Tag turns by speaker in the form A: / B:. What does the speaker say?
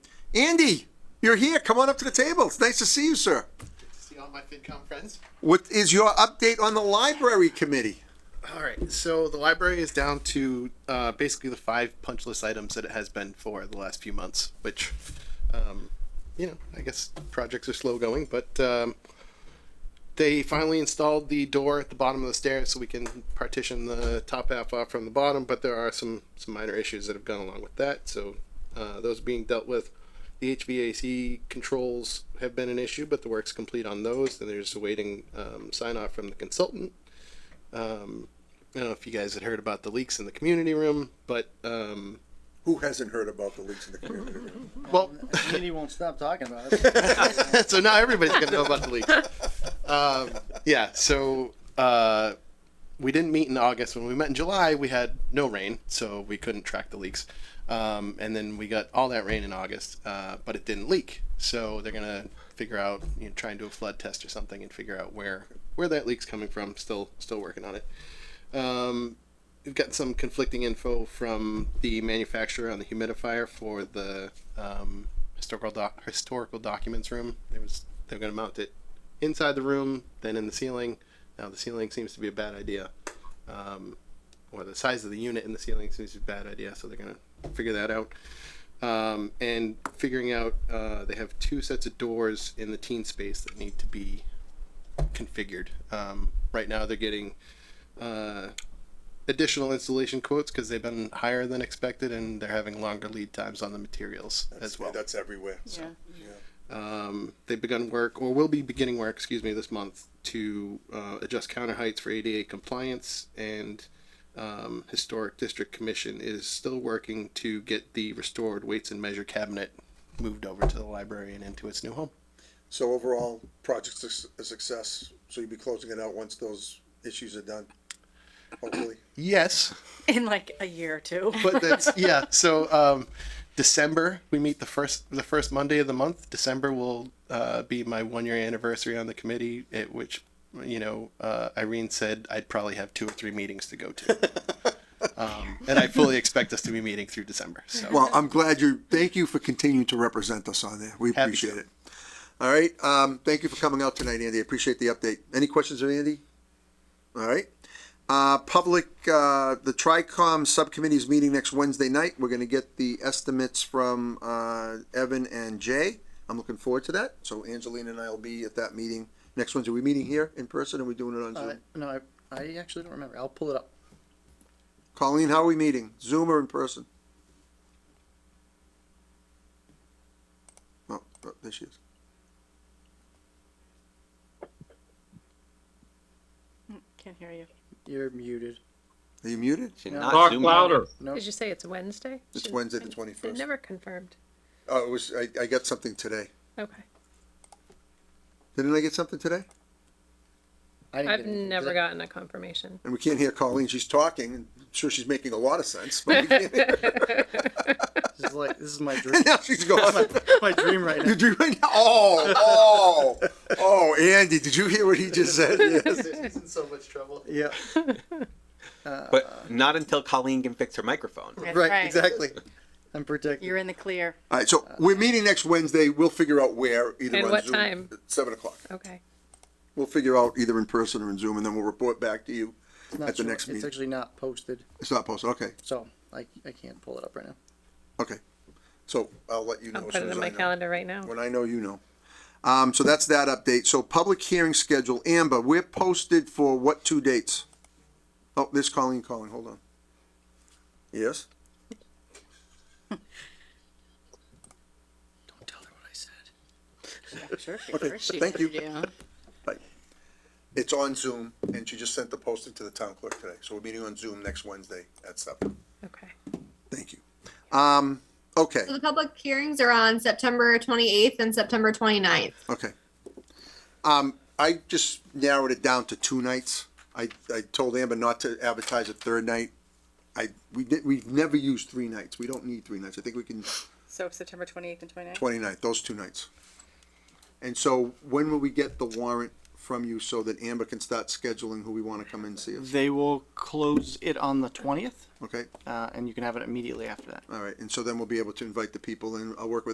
A: Andy, you're here. Come on up to the table. It's nice to see you, sir.
B: See all my FinCom friends?
A: What is your update on the library committee?
B: All right, so the library is down to uh, basically the five punch list items that it has been for the last few months, which, um, you know, I guess projects are slow going, but um, they finally installed the door at the bottom of the stairs so we can partition the top half off from the bottom, but there are some, some minor issues that have gone along with that, so uh, those are being dealt with. The HVAC controls have been an issue, but the work's complete on those, and there's awaiting um, sign off from the consultant. Um, I don't know if you guys had heard about the leaks in the community room, but um,
A: Who hasn't heard about the leaks in the community?
B: well,
C: Community won't stop talking about it.
B: so now everybody's gonna know about the leaks. Um, yeah, so uh, we didn't meet in August. When we met in July, we had no rain, so we couldn't track the leaks. Um, and then we got all that rain in August, uh, but it didn't leak. So they're gonna figure out, you know, try and do a flood test or something and figure out where where that leak's coming from. Still, still working on it. Um, we've got some conflicting info from the manufacturer on the humidifier for the um, historical doc- historical documents room. There was they're going to mount it inside the room, then in the ceiling. Now the ceiling seems to be a bad idea, um, or the size of the unit in the ceiling seems to be a bad idea. So they're going to figure that out. Um, and figuring out, uh, they have two sets of doors in the teen space that need to be configured. Um, right now, they're getting uh, additional installation quotes because they've been higher than expected and they're having longer lead times on the materials as well.
A: That's everywhere.
D: Yeah.
B: Um, they've begun work or will be beginning work, excuse me, this month to uh, adjust counter heights for ADA compliance and um, Historic District Commission is still working to get the restored weights and measure cabinet moved over to the library and into its new home.
A: So overall, project's a success. So you'll be closing it out once those issues are done, hopefully.
B: Yes,
D: In like a year or two.
B: but that's yeah. So um, December we meet the first the first Monday of the month. December will uh, be my one year anniversary on the committee, at which you know uh, Irene said I'd probably have two or three meetings to go to, um, and I fully expect us to be meeting through December. So
A: Well, I'm glad you, thank you for continuing to represent us on there. We
B: Happy
A: appreciate
B: to.
A: it. All right, um, thank you for coming out tonight, Andy. I appreciate the update. Any questions of Andy? All right. Uh, public, uh, the TRICOM subcommittee is meeting next Wednesday night. We're gonna get the estimates from, uh, Evan and Jay. I'm looking forward to that. So Angelina and I will be at that meeting next Wednesday. Are we meeting here in person or are we doing it on
C: Uh,
A: Zoom?
C: no, I, I actually don't remember. I'll pull it up.
A: Colleen, how are we meeting? Zoom or in person? Oh, oh, there she is.
D: Can't hear you.
C: You're muted.
A: Are you muted?
E: Should
C: No.
E: not
F: Talk
E: zoom
F: louder.
C: No.
G: Did you say it's Wednesday?
A: It's
G: Should-
A: Wednesday the
G: They
A: 21st.
G: never confirmed.
A: Oh, it was, I, I got something today.
G: Okay.
A: Didn't I get something today?
C: I didn't
G: I've
C: get anything.
G: never
C: Did I-
G: gotten a confirmation.
A: And we can't hear Colleen. She's talking. and I'm sure she's making a lot of sense. But we can't hear her.
C: This is like this is my dream.
A: And now she's gone.
C: my dream right now.
A: Did you right now? Oh, oh, oh, Andy, did you hear what he just said? Yes.
B: he's in so much trouble.
C: Yeah.
E: But not until Colleen can fix her microphone.
D: That's
C: Right, Exactly. I'm
D: You're
C: protected.
D: in the clear.
A: All right, so we're meeting next Wednesday. We'll figure out where either
G: And
A: on
G: what
A: Zoom,
G: time?
A: at Seven o'clock.
G: Okay.
A: We'll figure out either in person or in Zoom, and then we'll report back to you
C: Not
A: at the
C: sure.
A: next
C: It's
A: meeting.
C: actually not posted,
A: It's not posted. Okay,
C: so I, I can't pull it up right now.
A: okay. So I'll let you know.
G: I'll
A: as
G: put
A: soon
G: it
A: as
G: in
A: I
G: my
A: know.
G: calendar right now.
A: When I know, you know. Um, so that's that update. So public hearing schedule, Amber, we're posted for what two dates? Oh, there's Colleen calling. Hold on. Yes.
C: Don't tell her what I said.
D: Sure.
A: Okay. Thank you. Bye. It's on Zoom, and she just sent the posting to the town clerk today. So we're meeting on Zoom next Wednesday at seven.
G: Okay.
A: Thank you. Um, okay.
H: So the public hearings are on September 28th and September 29th.
A: Okay. Um, I just narrowed it down to two nights. I, I told Amber not to advertise a third night. I, we did, we've never used three nights. We don't need three nights. I think we can
D: So September 28th and 29th?
A: twenty-ninth, those two nights. And so when will we get the warrant from you so that Amber can start scheduling who we wanna come and see us?
C: They will close it on the twentieth,
A: Okay,
C: uh, and you can have it immediately after that.
A: all right. And so then we'll be able to invite the people and I'll work with